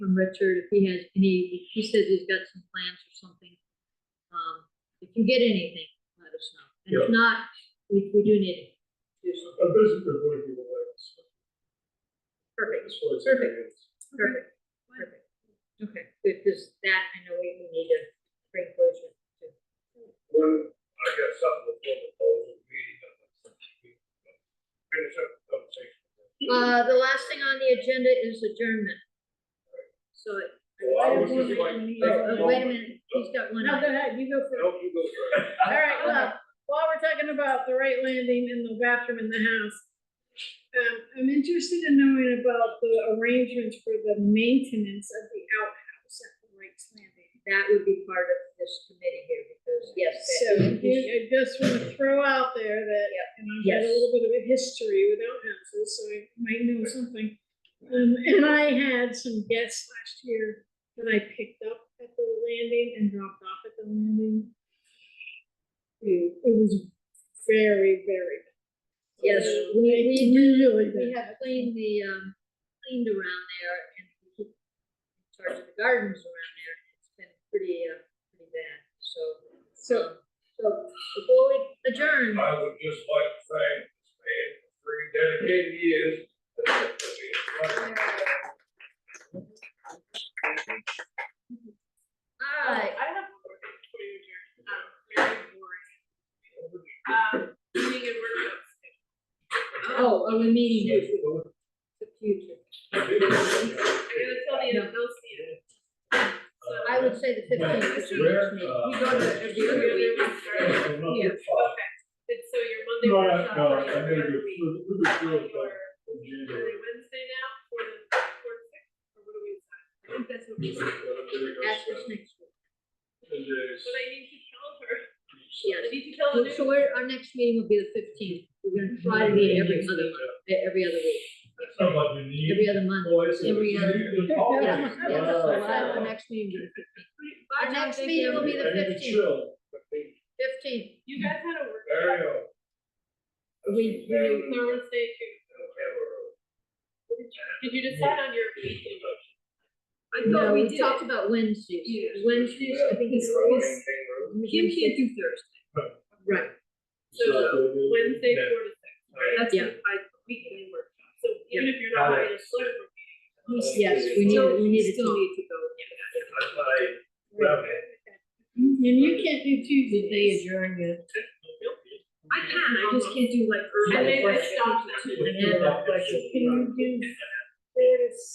from Richard, if he has any, he says he's got some plans or something. Um, if you get anything, let us know. And if not, we, we do need to do something. A visitor would be the way. Perfect, That's what it's- Perfect. perfect, perfect. Okay, because that, I know we, we need to bring closure to. When I got something before the close of the meeting, I'm like, finish up the conversation. Uh, the last thing on the agenda is adjournment. So. it- Well, I was just like- Uh, uh, Wait a minute, he's got one. No, go ahead, you go first. No, you go first. All right, well, while we're talking about the right landing and the bathroom in the house, um, I'm interested in knowing about the arrangements for the maintenance of the outhouse at the Wright's Landing. That would be part of this committee here, because yes. So you- I just want to throw out there that, and I've got a Yes. little bit of a history with outhouses, so I might know something. Um, and I had some guests last year that I picked up at the landing and dropped off at the landing. It it was very, very. bad. Yes, It we- we- Really We bad. have cleaned the, um, cleaned around there and we keep in charge of the gardens around there. It's been pretty, uh, pretty bad, so. So- So before we adjourn, I would just like to thank this man for three dedicated years. I, I have a question for you, Jerry. Um, very boring. Um, doing a workshop. oh, oh, the meeting is the future. They're gonna tell me that they'll see it. So, I would say the fifteenth is the Where, next meeting. uh, We go to every you're other gonna week. be starting. Yeah. Okay, and so your Monday No, I, workshop. no, I is made every it, week. we, we just On feel your- like, in Are January. they Wednesday now, for the, for the sixth, or what do we decide? I think that's what we said, That's what's next week. And but I need to tell her, I Yes. need to tell the new. So we're, our next meeting will be the fifteenth. We're gonna try to meet every other month, eh, every other week, That's not what we need. every other month. Boy, it's- every it's- other- it's- Yeah, oh, yeah, so we'll have wow. our next meeting. will be the Bye, Our Tom, next thank meeting you. will be the I need to 15th. chill. Fifteenth. You guys had a workshop. There you go. We- There- Thursday too. Did you decide on your weekly motion? I No, we talked about Wednesdays. Yeah. Wednesdays, I think it's always. Kim can't do Thursday. Right, So Wednesday, Yeah. four to six. right? That's Yeah. my weekly workshop. So even if you're not Yeah. having a select board meeting. yes, we need, we need to Still talk. need to go. Yeah. That's what I- Yeah. And you can't do Tuesdays. adjourn yet? I can, I just can't do like early I made I work. stopped. I had that question. Can you do four to